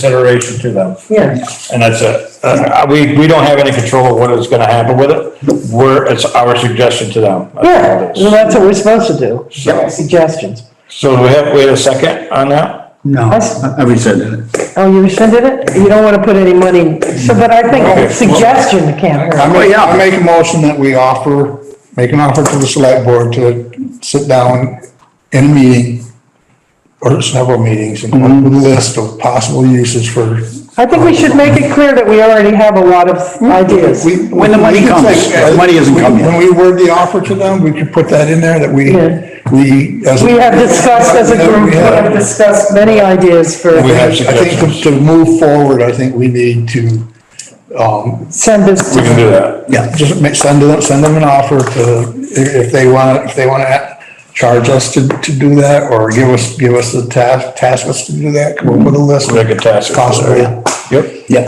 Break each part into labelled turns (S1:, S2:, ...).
S1: consideration to them,
S2: Yeah,
S1: and that's it. Uh, we, we don't have any control of what is gonna happen with it, we're, it's our suggestion to them.
S2: yeah, well, that's what we're supposed to do,
S1: So-
S2: suggestions.
S1: So do we have, we have a second on that?
S3: No, I I rescinded it.
S2: Oh, you rescinded it? You don't wanna put any money, so, but I think a suggestion can't hurt.
S4: I
S3: Oh,
S4: make,
S3: yeah.
S4: I make a motion that we offer, make an offer to the select board to sit down in a meeting or several meetings and come up with a
S2: Mm-hmm.
S4: list of possible uses for.
S2: I think we should make it clear that we already have a lot of ideas.
S4: We-
S3: When the money
S4: we could
S3: comes.
S4: say-
S3: The money hasn't come yet.
S4: When we word the offer to them, we could put that in there that we,
S2: Yeah.
S4: we. as a-
S2: We have discussed as a group, we have discussed many ideas for,
S1: We have
S4: I think
S1: suggestions,
S4: to- to move forward, I think we need to
S2: send this
S1: we can
S2: to,
S1: do that.
S4: Yeah, just make, send them, send them an offer to, if if they want, if they want to charge us to, to do that, or give us, give us the task, task us to do that, come up with a list.
S1: Make a task.
S4: Possibly.
S1: Yep.
S3: Yeah,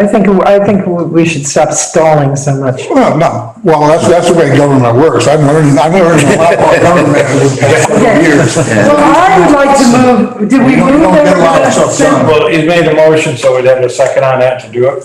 S2: I think, I think we should stop stalling so much.
S4: Well, no, well, that's, that's the way government works, I've learned, I've learned a lot about government over the past couple years.
S2: Well, I would like to move, did we
S4: You don't- you
S2: move
S4: don't
S2: that
S4: get a lot of
S2: we're gonna
S4: stuff done.
S2: send-
S1: Well, he's made a motion, so we'd have a second on that to do it.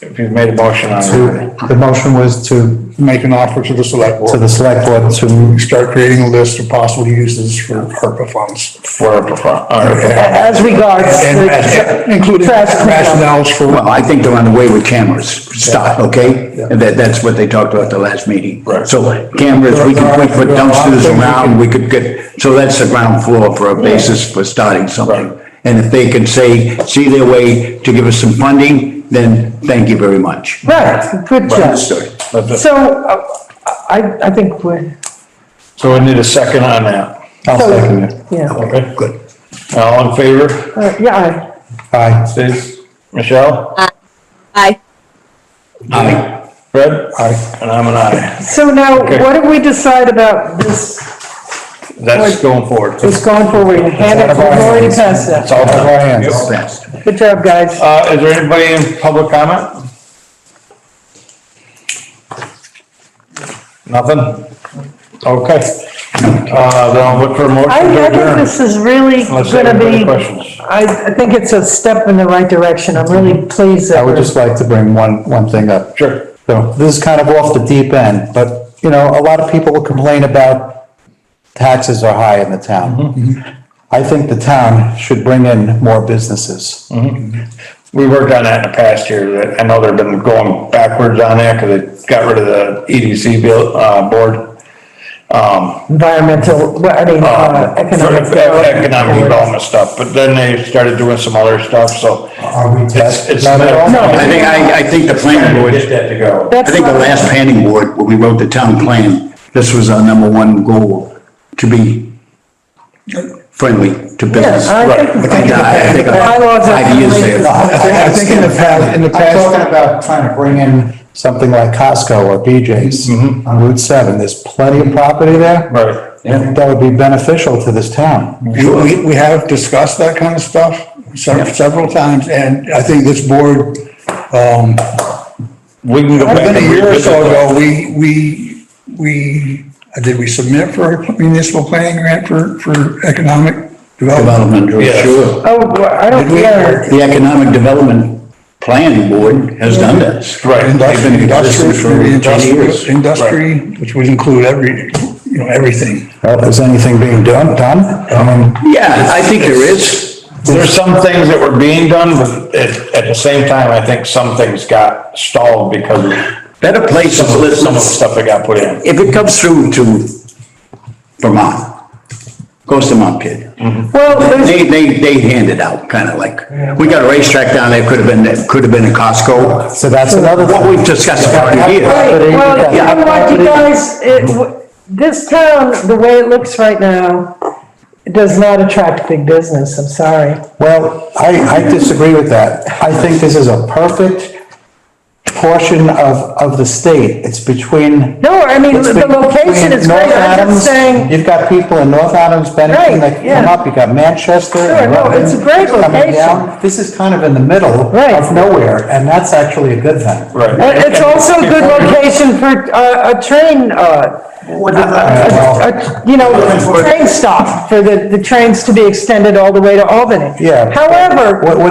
S1: If he's made a motion on it.
S5: The motion was to,
S4: Make an offer to the select
S5: to
S4: board,
S5: the select board to,
S4: start creating a list of possible uses for ARPA funds.
S1: For, for, for.
S2: As regards.
S4: And,
S2: the-
S4: and including
S2: Trash cleanup.
S4: rationales for.
S3: well, I think they're on the way with cameras, stop, okay? And that, that's what they talked about the last meeting.
S1: Right.
S3: So cameras, we could put- put dumpsters around, we could get, so that's the ground floor for a basis for starting something. And if they can say, see their way to give us some funding, then thank you very much.
S2: Right, good job.
S3: Understood.
S2: So, uh, I, I think we're,
S1: So we need a second on that.
S4: I'll second it.
S2: yeah,
S1: Okay,
S3: Good.
S1: all in favor?
S2: Uh, yeah,
S4: Aye.
S1: Stace? Michelle?
S6: Aye.
S3: Aye.
S1: Fred?
S4: Aye.
S1: And I'm an
S2: I-
S1: aye.
S2: so now,
S1: Okay.
S2: what do we decide about this,
S1: That's going forward.
S2: this going forward, hand it, we've already passed that,
S1: It's all
S4: That's our hands.
S1: Yep.
S3: Fast.
S2: good job, guys.
S1: Uh, is there anybody in public comment? Nothing? Okay. Uh, then I'll look for a
S2: I,
S1: motion to
S2: I think
S1: adjourn.
S2: this is really
S1: Unless there
S2: gonna
S1: are any
S2: be,
S1: questions. Mm-hmm.
S2: I, I think it's a step in the right direction, I'm really pleased
S5: I
S2: that
S5: would
S2: we're.
S5: just like to bring one, one thing up.
S1: Sure.
S5: So this is kind of off the deep end, but, you know, a lot of people will complain about taxes are high in the
S4: Mm-hmm.
S5: town. I think the town should bring in more businesses.
S1: We worked on that in the past year. that- I know they've been going backwards on that because they got rid of the EDC bill, uh, board.
S2: Environmental, well, I mean, uh,
S1: uh, for
S2: economic.
S1: the Economic
S2: development.
S1: development stuff, but then they started doing some other stuff, so.
S4: Are we
S1: It's, it's.
S3: I think, I, I think the planning board.
S1: Get that to go.
S3: I think the last planning board, when we wrote the town plan, this was our number one goal, to be friendly to business.
S2: Yeah, I think-
S3: Right. And I think about
S2: Bylaws are-
S3: Five years there.
S4: I think in the past, in the
S5: I'm
S4: past.
S5: talking about trying to bring in something like Costco or BJ's
S4: Mm-hmm.
S5: on Route 7. There's plenty of property there.
S1: Right.
S5: I think that would be beneficial to this town.
S4: You- We, we have discussed that kind of stuff several, several times, and I think this board, um,
S1: We can go back.
S4: within
S1: and
S4: a year or
S1: revisit
S4: so
S1: that.
S4: ago, we, we, we, did we submit for a municipal planning grant for, for economic development?
S3: Development,
S1: Yes.
S3: sure.
S2: Oh, well, I don't,
S4: Did we-
S2: yeah,
S3: The Economic Development Planning Board has done this.
S1: Right.
S3: They've been
S4: Industry,
S3: in
S4: industry,
S3: existence for ten years.
S4: industry, industry, which would include every, you know, everything.
S5: Well, if there's anything being done, done, I mean,
S3: Yeah, I think there is.
S1: There's some things that were being done, but at, at the same time, I think some things got stalled because of
S3: Better places,
S1: some of- some of the
S3: listen,
S1: stuff that got put in.
S3: if it comes through to Vermont, goes to Montpelier.
S2: well, there's
S3: They, they, they hand it out, kind of like, we got a racetrack down there, could have been, could have been a Costco.
S5: so that's another thing.
S3: What we've discussed for
S2: Right,
S3: years.
S2: well, you
S3: Yeah.
S2: know what, you guys, it,
S5: Mm-hmm.
S2: w- this town, the way it looks right now, it does not attract big business, I'm sorry.
S5: Well, I, I disagree with that. I think this is a perfect portion of, of the state. It's between.
S2: No, I mean,
S5: it's
S2: the location
S5: between
S2: is
S5: North
S2: great, I'm
S5: Adams-
S2: just saying,
S5: You've got people in North Adams,
S2: Right,
S5: Bennington that come
S2: yeah.
S5: up, you've got Manchester. and
S2: Sure, no, it's a
S5: Rutland
S2: great
S5: coming down.
S2: location.
S5: This is kind of in the middle
S2: Right.
S5: of nowhere, and that's actually a good thing.
S1: Right.
S2: and it's also a good location for, uh, a train, uh, a- you know, train stop for the, the trains to be extended all the way to Albany.
S5: Yeah.
S2: However.
S5: What- what do you-